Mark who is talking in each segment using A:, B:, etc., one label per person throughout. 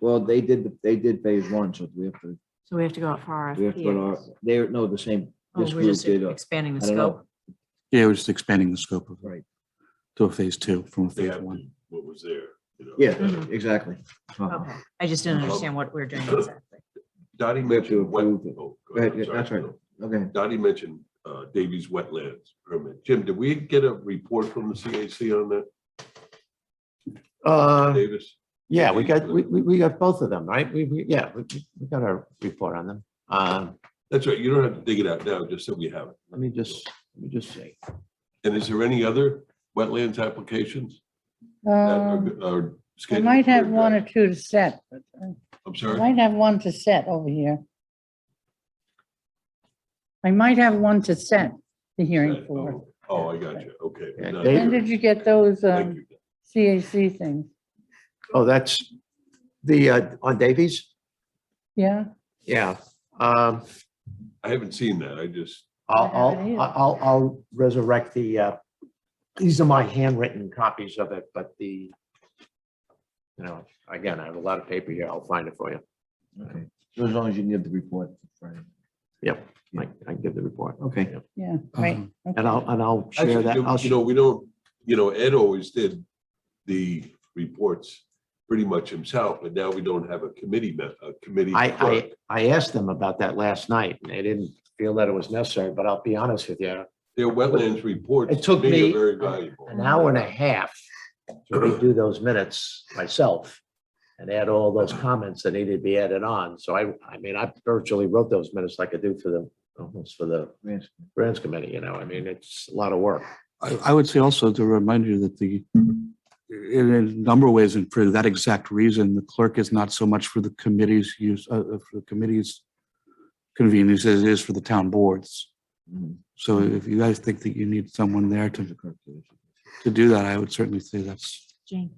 A: Well, they did, they did phase one, so we have to,
B: So we have to go out for
A: we have to, go to our-
B: RFPs.
A: they're, no, the same,
B: Oh,
A: this
B: we're
A: group
B: just
A: did, a-
B: expanding the
A: I don't know.
B: scope.
C: Yeah, we're just expanding the scope of,
A: right,
C: to a phase two from a
D: They
C: phase
D: have
C: one.
D: to- what was there. you know.
A: yeah,
B: Mhm.
A: exactly. Uh-huh.
B: Okay. I just didn't understand what we're doing exactly.
D: Dottie
A: We have to
D: mentioned. wet-
A: approve it.
D: oh, go
A: Go ahead,
D: ahead,
A: yeah,
D: sorry,
A: that's right.
D: Bill.
A: Okay,
D: Dottie mentioned uh, Davies Wetlands permit. Jim, did we get a report from the CAC on that,
A: Um,
E: Uh,
D: Davis?
E: yeah, we got, we, we, we got both of them, right? We, we, yeah, we, we- we got our report on them. Um,
D: That's right, you don't have to dig it out now, just so we have it.
E: let me just, let me just see.
D: And is there any other wetlands applications? that are
F: Um,
D: go- are
F: I
D: scheduled
F: might
D: for
F: have one or
D: address?
F: two to set, but uh,
D: I'm
F: I
D: sorry,
F: might have one to set over here. I might have one to set the hearing for.
D: oh, oh, I got you, okay.
E: Yeah,
D: Not
E: David-
F: When
D: sure.
F: did you get those
D: Thank
F: um,
D: you.
F: CAC things?
E: Oh, that's the, uh, on Davies?
F: Yeah,
E: Yeah. Um,
D: I haven't seen that, I just,
E: I'll,
F: I haven't
E: I'll,
F: either.
E: I'll, I'll resurrect the, uh, these are my handwritten copies of it, but the, you know, again, I have a lot of paper here. I'll find it for you.
A: okay. So as long as you can give the report. Friday.
E: Yep, I, I can give the report.
A: Okay.
E: Yep.
F: yeah, right.
C: Um,
E: And I'll, and I'll share
D: actually,
E: that. I'll
D: you know, we don't, you know, Ed always did the reports pretty much himself, but now we don't have a committee, me- a committee.
E: I,
D: clerk.
E: I, I asked them about that last night and they didn't feel that it was necessary, but I'll be honest with you.
D: Their wetlands reports.
E: It took
D: to are
E: me
D: Very valuable.
E: an hour and a half to redo those minutes myself and add all those comments that needed to be added on. So I, I mean, I virtually wrote those minutes like I do for the, almost for the
A: Yes.
E: grants committee, you know, I mean, it's a lot of work.
C: I, I would say also to remind you that the, in a number of ways, and for that exact reason, the clerk is not so much for the committee's use, uh, uh, for the committee's convenience as it is for the town boards.
A: Mhm.
C: So if you guys think that you need someone there
A: There's a
C: to,
A: clerk to this.
C: to do that, I would certainly say that's.
B: Jane,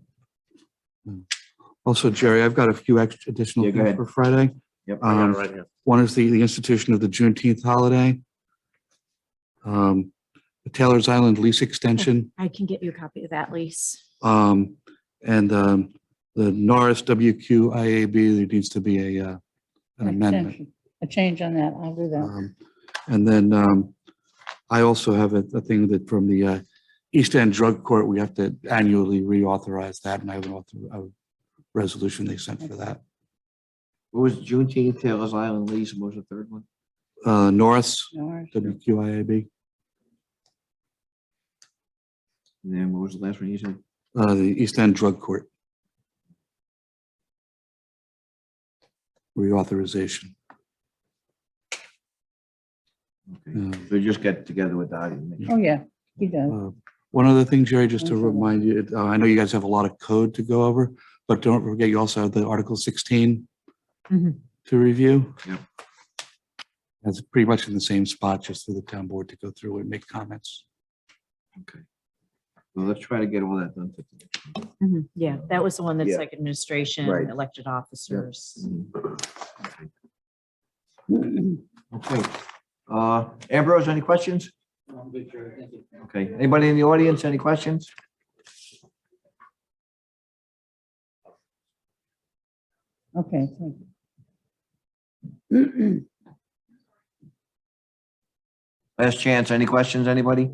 C: Also, Jerry, I've got a few extra
A: Yeah,
C: additional
A: go
C: things
A: ahead.
C: for Friday.
A: Yep.
E: I got it
C: Um,
E: right here.
C: One is the, the institution of the Juneteenth holiday. Um, the Taylor's Island lease extension.
B: I can get you a copy of that lease.
C: Um, and, um, the Norris WQIAB, there needs to be a, uh, an amendment.
F: Extension. A change on that, I'll do that.
C: Um, And then, um, I also have a, a thing that from the, uh, East End Drug Court, we have to annually reauthorize that and I have an author, a resolution they sent for that.
A: What was Juneteenth, Taylor's Island lease, what was the third one?
C: Uh, Norris
F: All right.
C: WQIAB,
A: And then what was the last one you said?
C: uh, the East End Drug Court. Reauthorization.
A: Okay.
C: Um,
A: So just get together with Dottie. and make-
F: Oh, yeah, he does.
C: Uh, One other thing, Jerry, just to
F: Thanks a lot.
C: remind you, uh, I know you guys have a lot of code to go over, but don't forget you also have the Article sixteen
B: Mhm.
C: to review.
A: Yep.
C: That's pretty much in the same spot, just for the town board to go through and make comments.
A: Well, let's try to get all that done. for today.
B: Mhm. Yeah, that was the one that's
A: Yeah.
B: like administration,
A: Right.
B: elected officers.
A: Okay, uh, Ambrose, any questions? Okay, anybody in the audience, any questions?
F: Okay, thank you.
A: Last chance, any questions, anybody?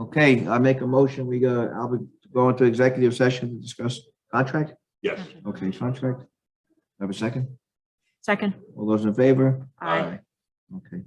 A: Okay, I make a motion, we go, I'll be going to executive session to discuss contract,
D: Yes.
A: okay, contract. Have a second,
B: Second,
A: all those in favor?
B: Aye.
A: Okay.